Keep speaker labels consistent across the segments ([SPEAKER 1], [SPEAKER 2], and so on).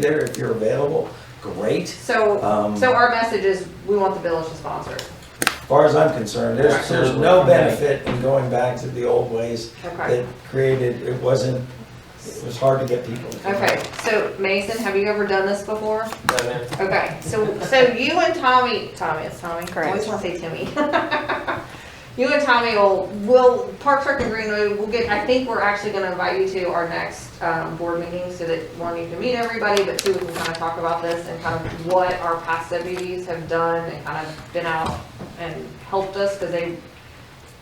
[SPEAKER 1] there if you're available, great.
[SPEAKER 2] So,
[SPEAKER 1] Um,
[SPEAKER 2] so our message is, we want the village to sponsor.
[SPEAKER 1] As far as I'm concerned, there's, there's no
[SPEAKER 3] Absolutely.
[SPEAKER 1] benefit in going back to the old ways
[SPEAKER 2] Okay.
[SPEAKER 1] that created, it wasn't, it was hard to get people. to come
[SPEAKER 2] Okay,
[SPEAKER 1] out.
[SPEAKER 2] so Mason, have you ever done this before?
[SPEAKER 3] Done it.
[SPEAKER 2] Okay, so, so you and Tommy, Tommy, it's Tommy, I always wanna say Timmy. You and Tommy will, will, Park Rec and Greenway, we'll get, I think we're actually gonna invite you to our next, um, board meeting so that one, you can meet everybody, but two, we can kinda talk about this and kind of what our past deputies have done and kind of been out and helped us, cause they,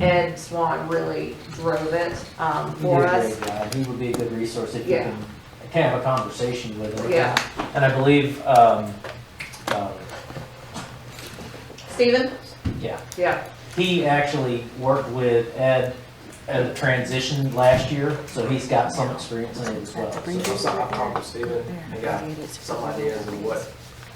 [SPEAKER 2] Ed Swan really drove it, um,
[SPEAKER 3] uh, He
[SPEAKER 2] for
[SPEAKER 3] did a
[SPEAKER 2] us.
[SPEAKER 3] great job. He would be a good resource if you
[SPEAKER 2] Yeah.
[SPEAKER 3] can, can have a conversation with him.
[SPEAKER 2] Yeah.
[SPEAKER 3] And I believe, um, um,
[SPEAKER 2] Steven?
[SPEAKER 3] yeah,
[SPEAKER 2] Yeah,
[SPEAKER 3] he actually worked with Ed at a transition last year, so he's got some experience in it as well.
[SPEAKER 4] Bring
[SPEAKER 3] so-
[SPEAKER 4] this
[SPEAKER 5] So I'll
[SPEAKER 4] up
[SPEAKER 5] talk to Steven and got some ideas of what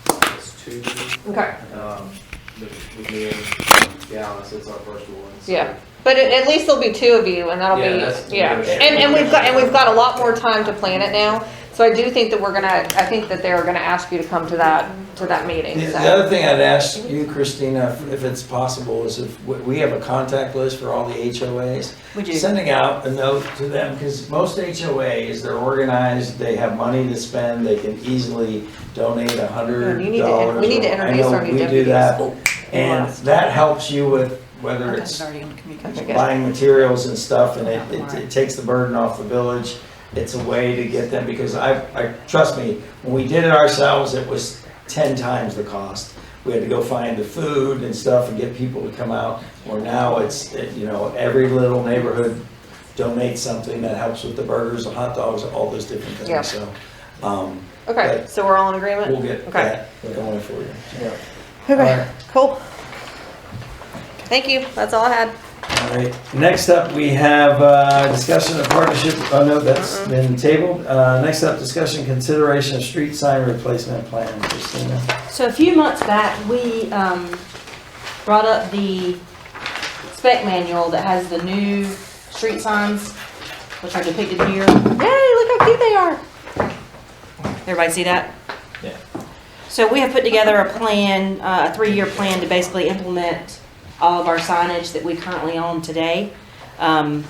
[SPEAKER 5] it's to do.
[SPEAKER 2] okay.
[SPEAKER 5] Um, with with me and Dallas, it's our first one. so-
[SPEAKER 2] Yeah. But at, at least there'll be two of you, and that'll
[SPEAKER 5] Yeah,
[SPEAKER 2] be
[SPEAKER 5] that's-
[SPEAKER 2] yeah.
[SPEAKER 5] yeah.
[SPEAKER 2] And and we've got and we've got a lot more time to plan it now. So I do think that we're gonna. I think that they're gonna ask you to come to that to that
[SPEAKER 1] The
[SPEAKER 2] meeting.
[SPEAKER 1] the
[SPEAKER 2] So.
[SPEAKER 1] other thing I'd ask you, Christina, if it's possible, is if, we- we have a contact list for all the HOAs.
[SPEAKER 4] We do.
[SPEAKER 1] Sending out a note to them, because most HOAs, they're organized, they have money to spend, they can easily donate a
[SPEAKER 2] Oh,
[SPEAKER 1] hundred
[SPEAKER 2] you
[SPEAKER 1] dollars.
[SPEAKER 2] need to- we need to
[SPEAKER 1] or- I
[SPEAKER 2] introduce
[SPEAKER 1] know
[SPEAKER 2] our new
[SPEAKER 1] we do
[SPEAKER 2] deputies.
[SPEAKER 1] that,
[SPEAKER 2] Oh,
[SPEAKER 1] And
[SPEAKER 2] last.
[SPEAKER 1] that helps you with, whether it's
[SPEAKER 4] It's already in communication.
[SPEAKER 2] Okay.
[SPEAKER 1] buying materials and stuff, and it, it- it takes the burden off the village. It's a way to get them, because I, I, trust me, when we did it ourselves, it was ten times the cost. We had to go find the food and stuff and get people to come out, where now it's, it- you know, every little neighborhood donates something that helps with the burgers, the hot dogs, all those different
[SPEAKER 2] Yeah.
[SPEAKER 1] things, so, um,
[SPEAKER 2] Okay, so we're all in agreement.
[SPEAKER 1] we'll get
[SPEAKER 2] Okay.
[SPEAKER 1] that going for you.
[SPEAKER 3] Yeah.
[SPEAKER 1] All right.
[SPEAKER 2] Okay. Cool. Thank you. That's all I had.
[SPEAKER 1] All right, next up, we have uh, discussion of partnership, oh no, that's been tabled. Uh, Next up, discussion consideration of street sign replacement plan, Christina.
[SPEAKER 6] So a few months back, we um, brought up the spec manual that has the new street signs, which are depicted here.
[SPEAKER 2] Yay! Look how cute they are.
[SPEAKER 6] Everybody see that?
[SPEAKER 3] Yeah.
[SPEAKER 6] So we have put together a plan, uh, a three-year plan to basically implement all of our signage that we currently own today. Um,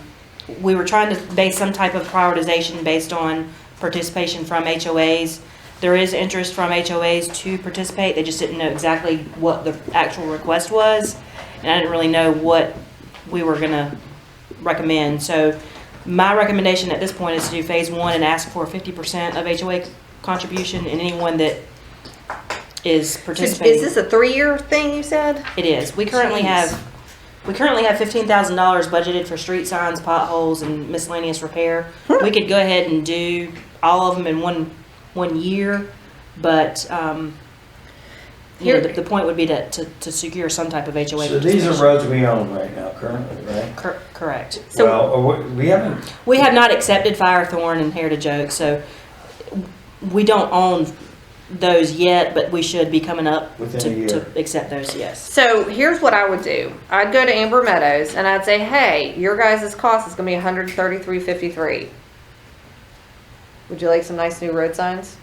[SPEAKER 6] We were trying to base some type of prioritization based on participation from HOAs. There is interest from HOAs to participate, they just didn't know exactly what the actual request was. And I didn't really know what we were gonna recommend. So my recommendation at this point is to do phase one and ask for fifty percent of HOA contribution and anyone that is participating.
[SPEAKER 2] Is this a three-year thing you said?
[SPEAKER 6] It is. We currently
[SPEAKER 2] Jeez.
[SPEAKER 6] have, we currently have fifteen thousand dollars budgeted for street signs, potholes, and miscellaneous repair. We could go ahead and do all of them in one, one year, but, um, you know, the, the point would be to, to, to secure some type of HOA.
[SPEAKER 1] So these are
[SPEAKER 6] participation.
[SPEAKER 1] roads we own right now currently, right?
[SPEAKER 6] Cor- Correct.
[SPEAKER 2] So-
[SPEAKER 1] Well, or we- we haven't,
[SPEAKER 6] We have not accepted Firethorn and Heritage Oak, so we don't own those yet, but we should be coming up
[SPEAKER 1] Within a
[SPEAKER 6] to,
[SPEAKER 1] year.
[SPEAKER 6] to accept those, yes.
[SPEAKER 2] So here's what I would do. I'd go to Amber Meadows and I'd say, hey, your guys' cost is gonna be 133.53. Would you like some nice new road signs?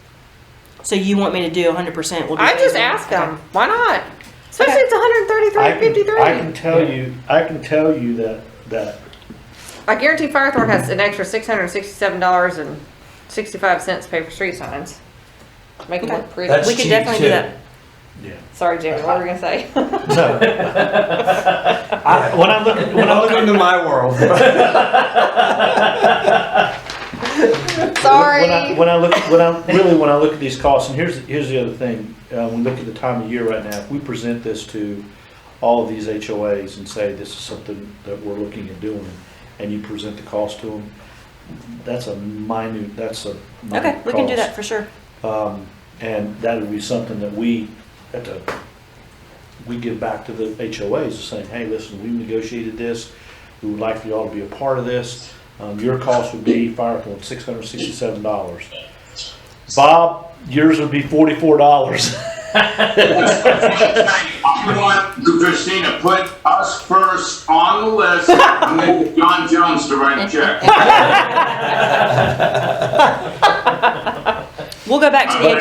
[SPEAKER 6] So you want me to do hundred percent?
[SPEAKER 2] I just asked them. Why not? Especially it's
[SPEAKER 7] I can, I can
[SPEAKER 2] 133.53.
[SPEAKER 7] tell you, I can tell you that, that
[SPEAKER 2] I guarantee Firethorn has an extra $667.65 to pay for street signs. To make them look pretty.
[SPEAKER 1] that's
[SPEAKER 6] We
[SPEAKER 1] cheap
[SPEAKER 6] could definitely do
[SPEAKER 1] too.
[SPEAKER 6] that.
[SPEAKER 2] Sorry, Jamie, what were we gonna say?
[SPEAKER 7] I, when I look, when I look,
[SPEAKER 1] Welcome to my world.
[SPEAKER 7] when I,
[SPEAKER 2] Sorry.
[SPEAKER 7] when I look, when I, really, when I look at these costs, and here's, here's the other thing, uh, when we look at the time of year right now, if we present this to all of these HOAs and say this is something that we're looking at doing, and you present the cost to them, that's a minute, that's a minute
[SPEAKER 6] Okay, we can do
[SPEAKER 7] cost.
[SPEAKER 6] that for sure.
[SPEAKER 7] Um, and that would be something that we, have to we give back to the HOAs, saying, hey, listen, we negotiated this, we would like for y'all to be a part of this. Um, your cost would be Firethorn, six hundred and sixty-seven dollars. Bob, yours would be forty-four dollars.
[SPEAKER 8] I want Christina, put us first on the list, and then John Jones to write a check.
[SPEAKER 6] We'll go back to the